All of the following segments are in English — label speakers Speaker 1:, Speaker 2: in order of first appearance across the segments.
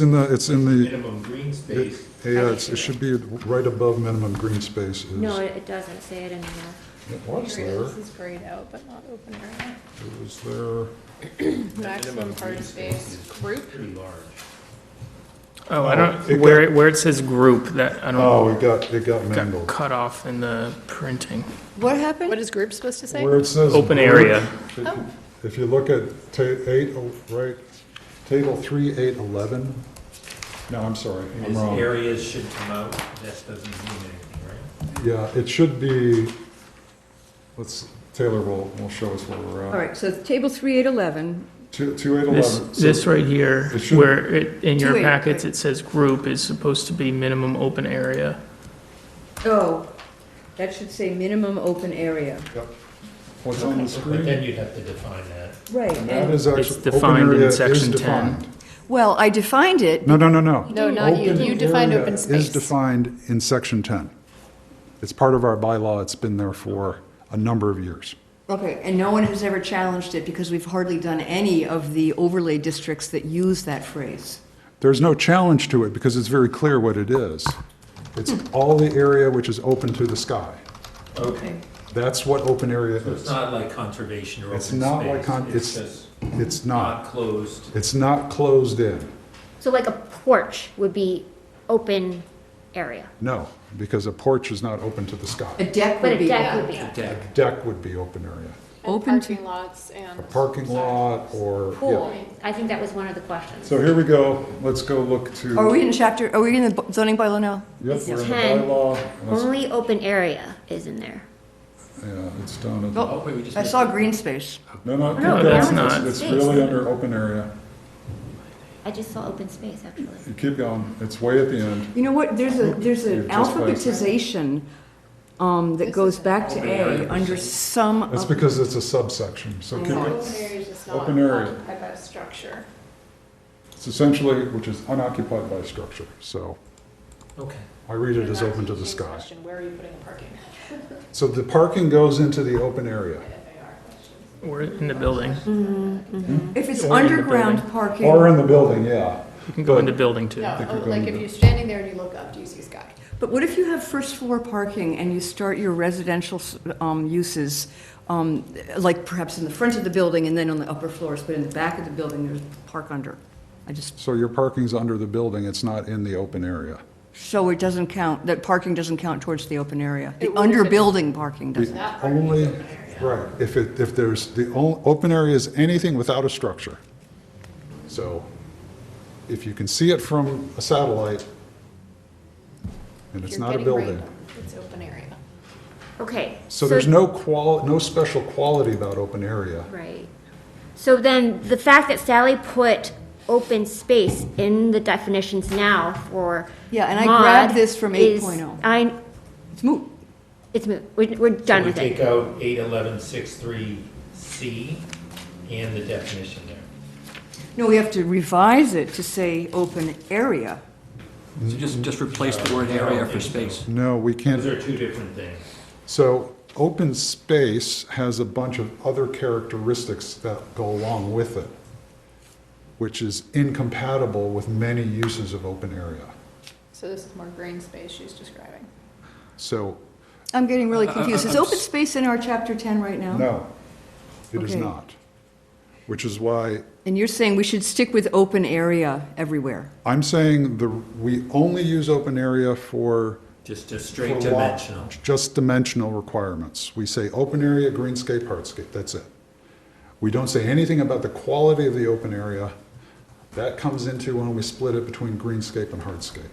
Speaker 1: in the, it's in the,
Speaker 2: minimum green
Speaker 1: it-
Speaker 2: space.
Speaker 1: yeah, it's- it should be right above minimum green space is.
Speaker 3: No, it it doesn't say it anymore.
Speaker 1: It was
Speaker 4: Here it
Speaker 1: there,
Speaker 4: is. This is grayed out, but not open area.
Speaker 1: it was there.
Speaker 4: Maximum party space group.
Speaker 2: Pretty large.
Speaker 5: Oh, I
Speaker 1: it
Speaker 5: don't, where, it- where it says group, that, I
Speaker 1: Oh,
Speaker 5: don't,
Speaker 1: it got, it got
Speaker 5: got
Speaker 1: mangled.
Speaker 5: cut off in the printing.
Speaker 3: What
Speaker 4: What
Speaker 3: happened?
Speaker 4: is group supposed to say?
Speaker 1: Where it says.
Speaker 5: Open
Speaker 1: group,
Speaker 5: area.
Speaker 1: if you- If you look at ta, eight, oh, right, table three, eight, eleven. No, I'm sorry, I'm
Speaker 2: These
Speaker 1: wrong.
Speaker 2: areas should come out, that doesn't mean anything, right?
Speaker 1: Yeah, it should be, let's, Taylor will, will show us where we're at.
Speaker 6: All right, so table 3811,
Speaker 1: Two, two, eight,
Speaker 5: This,
Speaker 1: eleven. So-
Speaker 5: this right here,
Speaker 1: It should-
Speaker 5: where it, in your
Speaker 6: Two eight,
Speaker 5: packets,
Speaker 6: right.
Speaker 5: it says group is supposed to be minimum open area.
Speaker 6: oh, that should say minimum open area.
Speaker 1: Yep. What's on the
Speaker 2: But
Speaker 1: screen?
Speaker 2: then you'd have to define that.
Speaker 6: Right.
Speaker 1: And that is
Speaker 5: It's
Speaker 1: actually, open
Speaker 5: defined in
Speaker 1: area is
Speaker 5: section 10.
Speaker 1: defined.
Speaker 6: Well, I defined it,
Speaker 1: No, no, no, no.
Speaker 4: No, not you.
Speaker 1: Open
Speaker 4: You defined
Speaker 1: area
Speaker 4: open
Speaker 1: Is
Speaker 4: space.
Speaker 1: defined in section 10. It's part of our bylaw, it's been there for a number of years.
Speaker 6: okay, and no one has ever challenged it because we've hardly done any of the overlay districts that use that phrase.
Speaker 1: There's no challenge to it because it's very clear what it is. It's all the area which is open to the sky.
Speaker 2: Okay.
Speaker 1: That's what open area
Speaker 2: So it's
Speaker 1: is.
Speaker 2: not like conservation or open
Speaker 1: It's
Speaker 2: space.
Speaker 1: not like con- it's-
Speaker 2: just
Speaker 1: It's
Speaker 2: Not
Speaker 1: not,
Speaker 2: closed.
Speaker 1: it's not closed in,
Speaker 3: So like a porch would be open area,
Speaker 1: no, because a porch is not open to the
Speaker 6: A
Speaker 1: sky.
Speaker 6: deck
Speaker 3: but
Speaker 6: would
Speaker 3: a
Speaker 6: be.
Speaker 3: deck would be.
Speaker 2: Deck.
Speaker 1: Deck would be open area.
Speaker 6: Open to-
Speaker 4: Parking lots and.
Speaker 1: A parking lot or,
Speaker 3: Pool,
Speaker 1: yeah.
Speaker 3: I think that was one of the questions.
Speaker 1: So here we go, let's go look to.
Speaker 6: Are we in chapter, are we in the bu- zoning bylaw now?
Speaker 1: Yep, we're in the
Speaker 3: 10.
Speaker 1: bylaw. Let's-
Speaker 3: Only open area is in there.
Speaker 1: Yeah, it's down at,
Speaker 6: Oh,
Speaker 2: Okay, we just
Speaker 6: I
Speaker 2: made-
Speaker 6: saw green space.
Speaker 1: no, no, keep
Speaker 3: No,
Speaker 1: going.
Speaker 5: that's
Speaker 1: It's-
Speaker 5: not.
Speaker 1: It's really under open area.
Speaker 3: I just saw open space, actually.
Speaker 1: You keep going, it's way at the end.
Speaker 6: You know what, there's a, there's
Speaker 1: You're
Speaker 6: an
Speaker 1: just like-
Speaker 6: alphabetization um, that goes back to A under some
Speaker 5: Oh.
Speaker 1: That's
Speaker 6: of,
Speaker 1: because it's a subsection, so keep
Speaker 4: Open
Speaker 1: it,
Speaker 4: area is just not
Speaker 1: Open area.
Speaker 4: occupied by a structure.
Speaker 1: it's essentially, which is unoccupied by structure, so
Speaker 2: Okay.
Speaker 1: I read it as
Speaker 4: Not
Speaker 1: open to the
Speaker 4: James'
Speaker 1: sky.
Speaker 4: question, Where are you putting the parking?
Speaker 1: So the parking goes into the open area,
Speaker 5: Or in the building.
Speaker 4: Mm-hmm.
Speaker 6: if it's
Speaker 5: Or in the
Speaker 6: underground
Speaker 5: building.
Speaker 6: parking.
Speaker 1: or in the building, yeah.
Speaker 5: You can go
Speaker 1: But-
Speaker 5: into building too.
Speaker 4: No,
Speaker 1: could
Speaker 4: oh,
Speaker 1: go
Speaker 4: like
Speaker 1: into-
Speaker 4: if you're standing there and you look up, do you see sky?
Speaker 6: But what if you have first floor parking and you start your residential um, uses, um, like perhaps in the front of the building and then on the upper floors, but in the back of the building, there's park under? I just,
Speaker 1: So your parking's under the building, it's not in the open area.
Speaker 6: so it doesn't count, that parking doesn't count towards the open area?
Speaker 4: It
Speaker 6: The
Speaker 4: would if
Speaker 6: under
Speaker 4: it's-
Speaker 6: building parking doesn't?
Speaker 1: The only, right, if it, if there's, the o- open area is anything without a structure. So if you can see it from a satellite, and
Speaker 4: If
Speaker 1: it's
Speaker 4: you're
Speaker 1: not a
Speaker 4: getting
Speaker 1: building.
Speaker 4: rained on, It's open area.
Speaker 3: Okay.
Speaker 1: So there's no qual, no special quality about open area.
Speaker 3: Right. So then, the fact that Sally put open space in the definitions now for.
Speaker 6: Yeah, and I grabbed
Speaker 3: mod
Speaker 6: this from oh.
Speaker 3: is-
Speaker 6: 8.0.
Speaker 3: I,
Speaker 6: It's moot.
Speaker 3: it's, moot. we're, we're done
Speaker 2: So we
Speaker 3: with
Speaker 2: take
Speaker 3: it.
Speaker 2: out eight eleven six three C and the definition there.
Speaker 6: No, we have to revise it to say open area.
Speaker 7: So just, just replace the word area for space.
Speaker 1: No, we
Speaker 2: Those
Speaker 1: can't,
Speaker 2: are two different things.
Speaker 1: so open space has a bunch of other characteristics that go along with it, which is incompatible with many uses of open area.
Speaker 4: So this is more green space she's describing.
Speaker 1: So,
Speaker 6: I'm getting really
Speaker 4: Uh,
Speaker 7: I- I-
Speaker 6: confused. Is
Speaker 7: I'm
Speaker 6: open
Speaker 7: s-
Speaker 6: space in our chapter 10 right now?
Speaker 1: no, it is
Speaker 6: Okay.
Speaker 1: not. Which is why
Speaker 6: And you're saying we should stick with open area everywhere?
Speaker 1: I'm saying the, we only use open area for.
Speaker 2: Just
Speaker 1: for
Speaker 2: straight
Speaker 1: lot-
Speaker 2: dimensional.
Speaker 1: Just dimensional requirements. We say open area, greenscape, hardscape, that's it. We don't say anything about the quality of the open area. That comes into when we split it between greenscape and hardscape.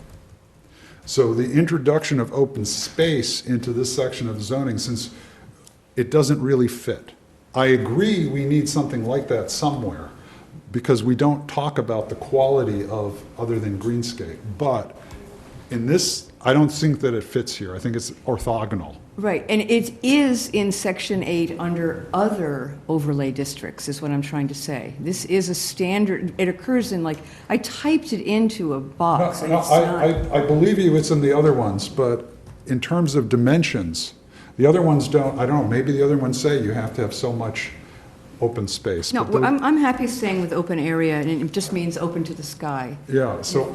Speaker 1: So the introduction of open space into this section of zoning, since it doesn't really fit. I agree we need something like that somewhere because we don't talk about the quality of other than greenscape. But in this, I don't think that it fits here. I think it's orthogonal.
Speaker 6: Right, and it is in Section 8 under other overlay districts, is what I'm trying to say. This is a standard, it occurs in like, I typed it into a
Speaker 1: No,
Speaker 6: box and
Speaker 1: no,
Speaker 6: it's not.
Speaker 1: I, I, I believe you, it's in the other ones, but in terms of dimensions, the other ones don't, I don't know, maybe the other ones say you have to have so much open space.
Speaker 6: No,
Speaker 1: but the-
Speaker 6: I'm, I'm happy staying with open area, and it just means open to the sky.
Speaker 1: Yeah, so